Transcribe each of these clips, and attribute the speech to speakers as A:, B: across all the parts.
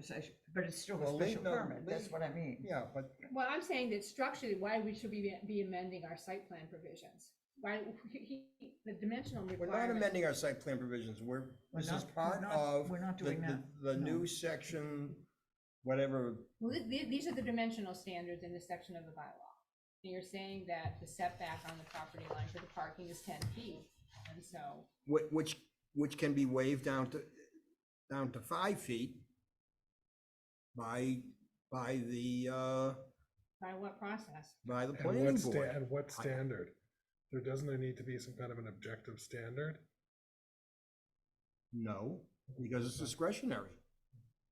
A: conversation, but it's still a
B: Well, leave
A: special
B: no-
A: permit, that's
B: leave-
A: what I mean.
B: Yeah, but
C: Well, I'm saying that structurally, why we should be, be amending our site plan provisions? Why, the dimensional
B: we're not
C: requirement,
B: amending our site plan provisions, we're,
A: We're
B: this is
A: not- we're
B: part
A: not-
B: of.
A: we're not
B: the-
A: doing
B: the-
A: that,
B: The
A: no.
B: new section, whatever,
C: well, th- th- these are the dimensional standards in this section of the bylaw. And you're saying that the setback on the property line for the parking is ten feet, and so,
B: whi- which, which can be waived down to, down to five feet by, by the, uh,
C: by what process?
B: by the
D: And
B: planning
D: what, sta-
B: board.
D: and what
B: I-
D: standard? There, doesn't there need to be some kind of an objective standard?
B: No, because it's discretionary.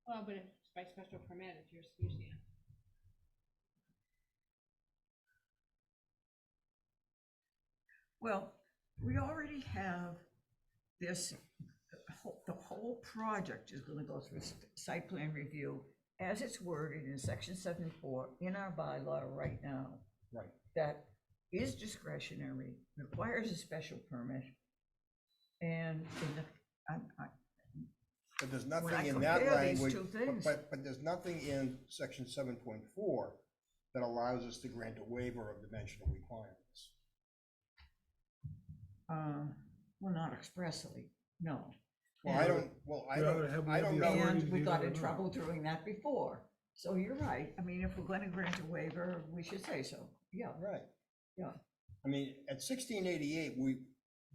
C: Well, but if it's by special permit, it's your, you see.
A: Well, we already have this, the whole- the whole project is gonna go through s- site plan review as it's worded in section seventy-four in our bylaw right now.
B: Right.
A: That is discretionary, requires a special permit. And in the, I'm, I,
B: But there's
A: When I
B: nothing in that
A: compare these
B: language,
A: two
B: but-
A: things.
B: but, but there's nothing in section seven point four that allows us to grant a waiver of dimensional requirements.
A: uh, well, not expressly, no.
B: Well, I don't, well, I
D: Well, have
B: don't,
D: we
B: I
D: had
B: don't
D: the
B: know.
D: authority
A: And
D: to
A: we
D: do
A: got
D: that
A: in
D: or not?
A: trouble doing that before. So you're right. I mean, if we're gonna grant a waiver, we should say so. Yeah,
B: Right.
A: Yeah.
B: I mean, at sixteen eighty-eight, we,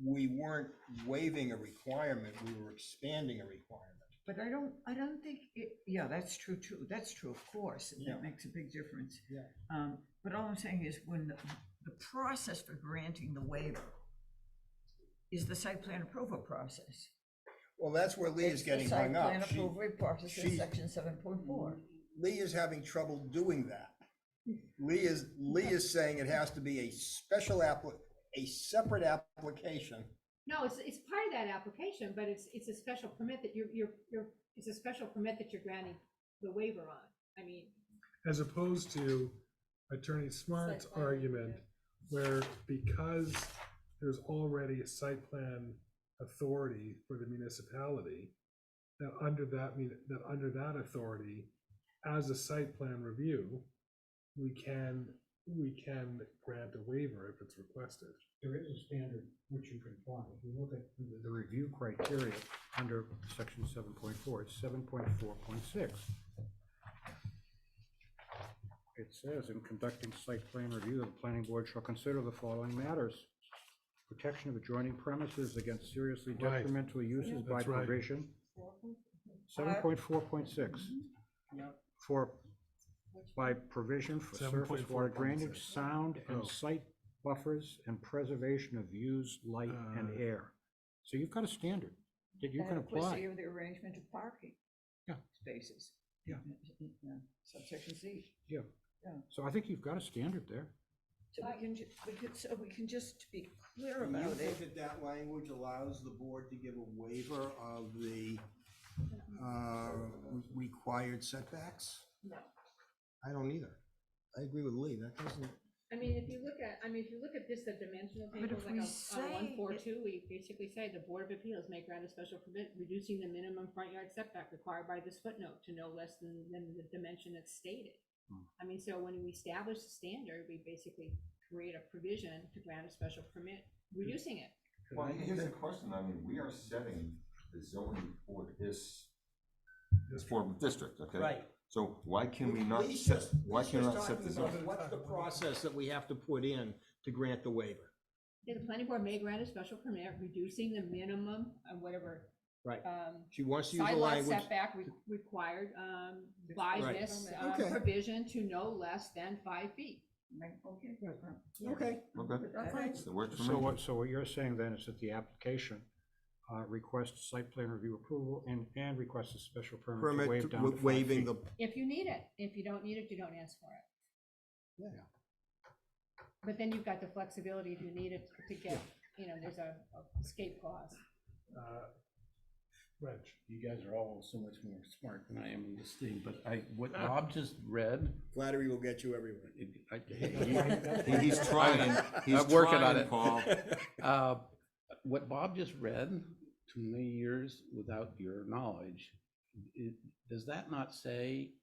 B: we weren't waiving a requirement, we were expanding a requirement.
A: but I don't, I don't think it, yeah, that's true too. That's true, of course. and
B: Yeah.
A: That makes a big difference.
B: Yeah.
A: Um, but all I'm saying is when the, the process for granting the waiver is the site plan approval process.
B: Well, that's where Lee
A: It's
B: is
A: the
B: getting hung
A: Site
B: up.
A: plan
B: She-
A: approval process in
B: she-
A: section seven point four.
B: Lee is having trouble doing that. Lee is, Lee is saying it has to be a special appli, a separate application
C: No, it's, it's part of that application, but it's, it's a special permit that you're, you're, you're, it's a special permit that you're granting the waiver on, I mean.
D: As opposed to Attorney Smart's
C: plan,
D: argument,
C: yeah.
D: where because there's already a site plan authority for the municipality, that under that, mun- that under that authority, as a site plan review, we can, we can grant a waiver if it's requested.
E: there is a standard which you can apply. If you look at the- the review criteria under section seven point four, it's seven point four point six. It says, in conducting site plan review, the planning board shall consider the following matters. Protection of adjoining premises against seriously
D: Right.
E: detrimental uses by
D: That's right.
E: provision. Seven point four point six. For, by provision for surface water
D: 7.4.6.
E: drainage, sound
D: Oh.
E: and site buffers and preservation of views, light and
D: Uh,
E: air. So you've got a standard that you can
A: Adequacy
E: apply.
A: of the arrangement of parking.
E: Yeah.
A: Spaces.
E: Yeah.
A: Yeah, Subsection C.
E: Yeah.
A: Yeah.
E: So I think you've got a standard there.
A: So we can, ju- we could, so we can just be clear
B: Do you
A: about
B: think
A: it.
B: that that language allows the board to give a waiver of the uh, re- required setbacks?
C: No.
B: I don't either. I agree with Lee, that doesn't,
C: I mean, if you look at, I mean, if you look at this, the dimensional
A: But
C: table,
A: if we
C: like
A: say
C: on one four
A: it-
C: two, we basically say the Board of Appeals may grant a special permit reducing the minimum front yard setback required by this footnote to no less than, than the dimension that's stated. I mean, so when we establish the standard, we basically create a provision to grant a special permit, reducing it.
F: Well, here's the question, I mean, we are setting the zoning for this, this form of district, okay?
B: Right.
F: So why can we not
B: Lee's
F: set,
B: just-
F: why
B: Lee's
F: can we
B: just
F: not set
B: talking
F: the
B: about
F: zoning?
B: What's the process that we have to put in to grant the waiver?
C: Yeah, The planning board may grant a special permit reducing the minimum, uh, whatever,
B: Right.
C: um,
B: She wants to use the
C: sidewalk
B: language.
C: setback re- required, um, by
B: Right.
C: this,
A: Permit.
C: uh,
B: Okay.
C: provision to no less than five feet.
A: Right, okay.
B: Okay,
F: Okay,
A: All right.
F: so it works for
E: So
F: me.
E: what, so what you're saying then is that the application uh, requests site plan review approval and, and requests a special permit to
B: permit
E: waive down to
B: w-
E: five
B: waiving
E: feet.
B: the,
C: If you need it, if you don't need it, you don't ask for it. But then you've got the flexibility if you need it to get, you know, there's a a escape clause.
D: Uh, Reg,
G: you guys are all so much more smart than I am in this thing, but I, what Rob just read,
B: flattery will get you everywhere.
G: it- I,
F: He-
G: he-
F: He's trying, he's
G: I'm working on
F: trying,
G: it.
F: Paul.
G: uh, what Bob just read, too many years without your knowledge, it, does that not say